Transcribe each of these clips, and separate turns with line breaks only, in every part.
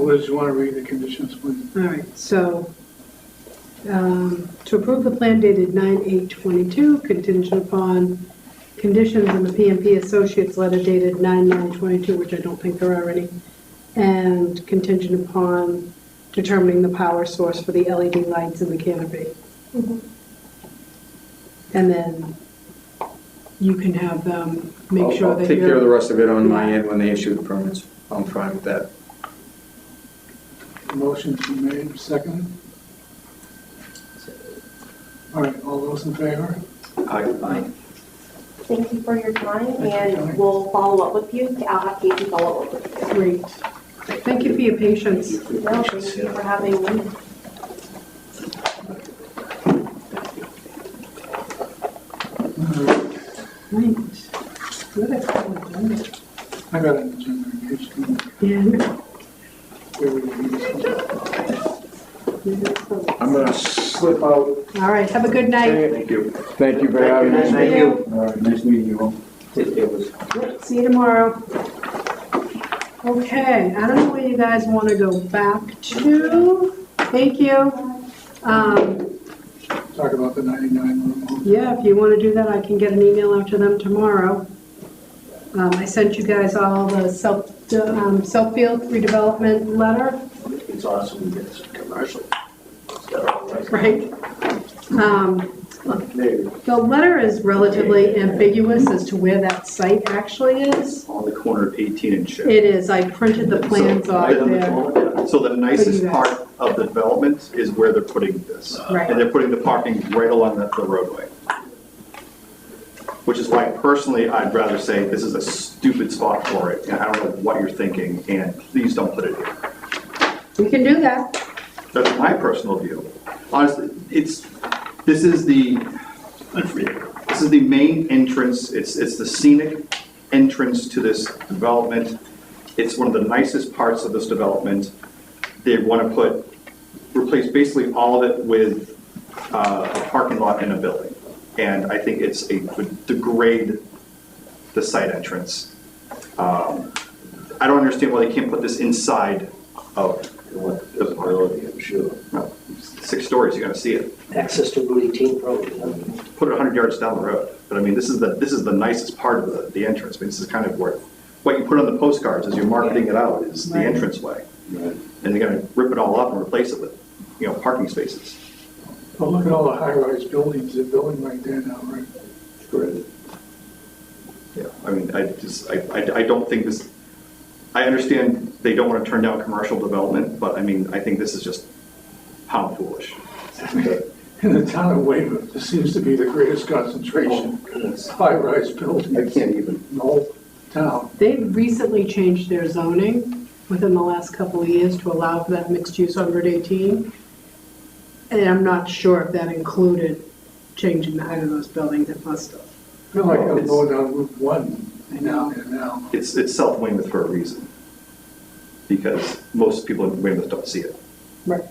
Liz, you want to read the conditions, please?
All right, so um, to approve the plan dated 9/8/22 contingent upon conditions in the PMP Associates letter dated 9/9/22, which I don't think there are any, and contingent upon determining the power source for the LED lights in the canopy. And then you can have them make
I'll-
sure
I'll
that
take care of the
you're,
rest of it on my
Yeah.
end when they issue the permits. I'm fine with that.
Motion's been made, second. All right, all those in favor?
Aye.
Thank you for your time,
Thank you, Kelly.
and we'll follow up with you. I'll have Casey follow up with you.
great. Thank you for your patience.
No, thank you for having me.
Uh,
Right. Good, I probably done it.
I got an agenda, in case you didn't.
Yeah, no,
we were gonna use it.
you did so.
I'm gonna slip out.
All right, have a good night.
Thank you. Thank you for having me.
Thank you.
All right, nice meeting you all. It was
See you tomorrow. Okay, I don't know where you guys want to go back to. Thank you. Um,
Talk about the 99 room.
yeah, if you want to do that, I can get an email out to them tomorrow. Um, I sent you guys all the self, um, Southfield redevelopment letter.
It's awesome to get some commercial stuff.
Right. Um,
Maybe
the letter is relatively ambiguous as to where that site actually is.
on the corner of 18 and Ship.
It is, I printed the plans
So,
off
right on the
there.
corner. So the nicest
guys.
part of the development is where they're putting this.
Right.
And they're putting the parking right along the the roadway. Which is why personally, I'd rather say this is a stupid spot for it. And I don't know what you're thinking, and please don't put it here.
We can do that.
That's my personal view. Honestly, it's, this is the, this is the main entrance, it's, it's the scenic entrance to this development. It's one of the nicest parts of this development. They want to put, replace basically all of it with uh, a parking lot and a building. And I think it's, it would degrade the site entrance. Um, I don't understand why they can't put this inside of the
Ability, I'm sure.
no, six stories, you're gonna see it.
Access to Route 18 probably. huh?
Put it 100 yards down the road. But I mean, this is the, this is the nicest part of the, the entrance. I mean, this is kind of where, what you put on the postcards as you're marketing it out is the
Right.
entranceway. And they're gonna rip it all up and replace it with, you know, parking spaces.
Well, Oh, look at all the high-rise buildings, they're building right there now, right?
Correct. Yeah, I mean, I just, I, I I don't think this, I understand they don't wanna turn down commercial development, but I mean, I think this is just pound foolish.
In the town of Weymouth, this seems to be the greatest
Oh,
concentration of high-rise buildings in
even.
the whole town.
They recently changed their zoning within the last couple of years to allow for that mixed use on Route 18. And I'm not sure if that included changing the height of those buildings, it must have.
I feel like I'm
Well, Oh, it's-
going down Route 1 now and now.
It's, it's South Weymouth for a reason, because most people in Weymouth don't see it.
Right.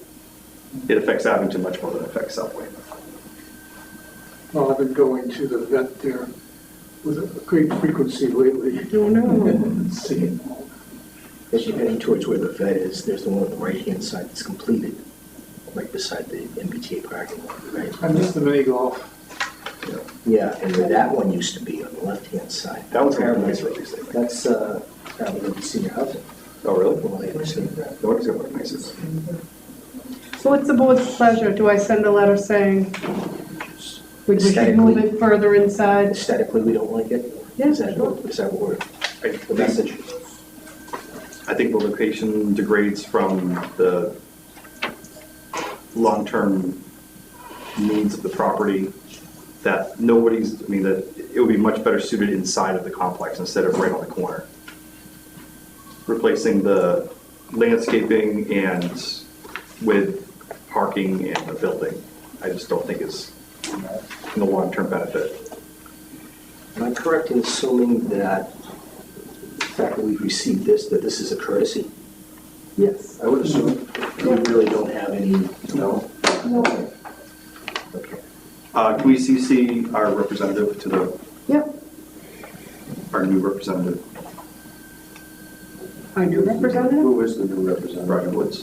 It affects Abington much more than it affects South Weymouth.
Well, I've been going to the vet there with a great frequency lately.
Don't know.
Seeing all
As you're heading towards where the vet is, there's the one on the right-hand side that's completed, right beside the MBTA parking lot, right?
I miss the mini golf.
Yeah, and where that one used to be on the left-hand side.
That one's gonna be nice
Paramount.
release, I think.
That's, uh, probably gonna be senior housing.
Oh, really?
from what I understand.
No one's gonna look nicer.
So what's the board's pleasure? Do I send a letter saying we we should move it further inside?
Aesthetically, we don't like it.
Yeah,
Is that
sure.
Is that what, we're-
I
the
think,
message?
I think the location degrades from the long-term needs of the property, that nobody's, I mean, that it would be much better suited inside of the complex instead of right on the corner. Replacing the landscaping and with parking and a building, I just don't think is in the long-term benefit.
Am I correct in assuming that the fact that we've received this, that this is a courtesy?
Yes.
I would assume we really don't have any, no? No. Okay.
Uh, Can we CC our representative to the,
Yep.
our new representative?
Um,
our new representative?
Who is the new representative?
Roger Woods.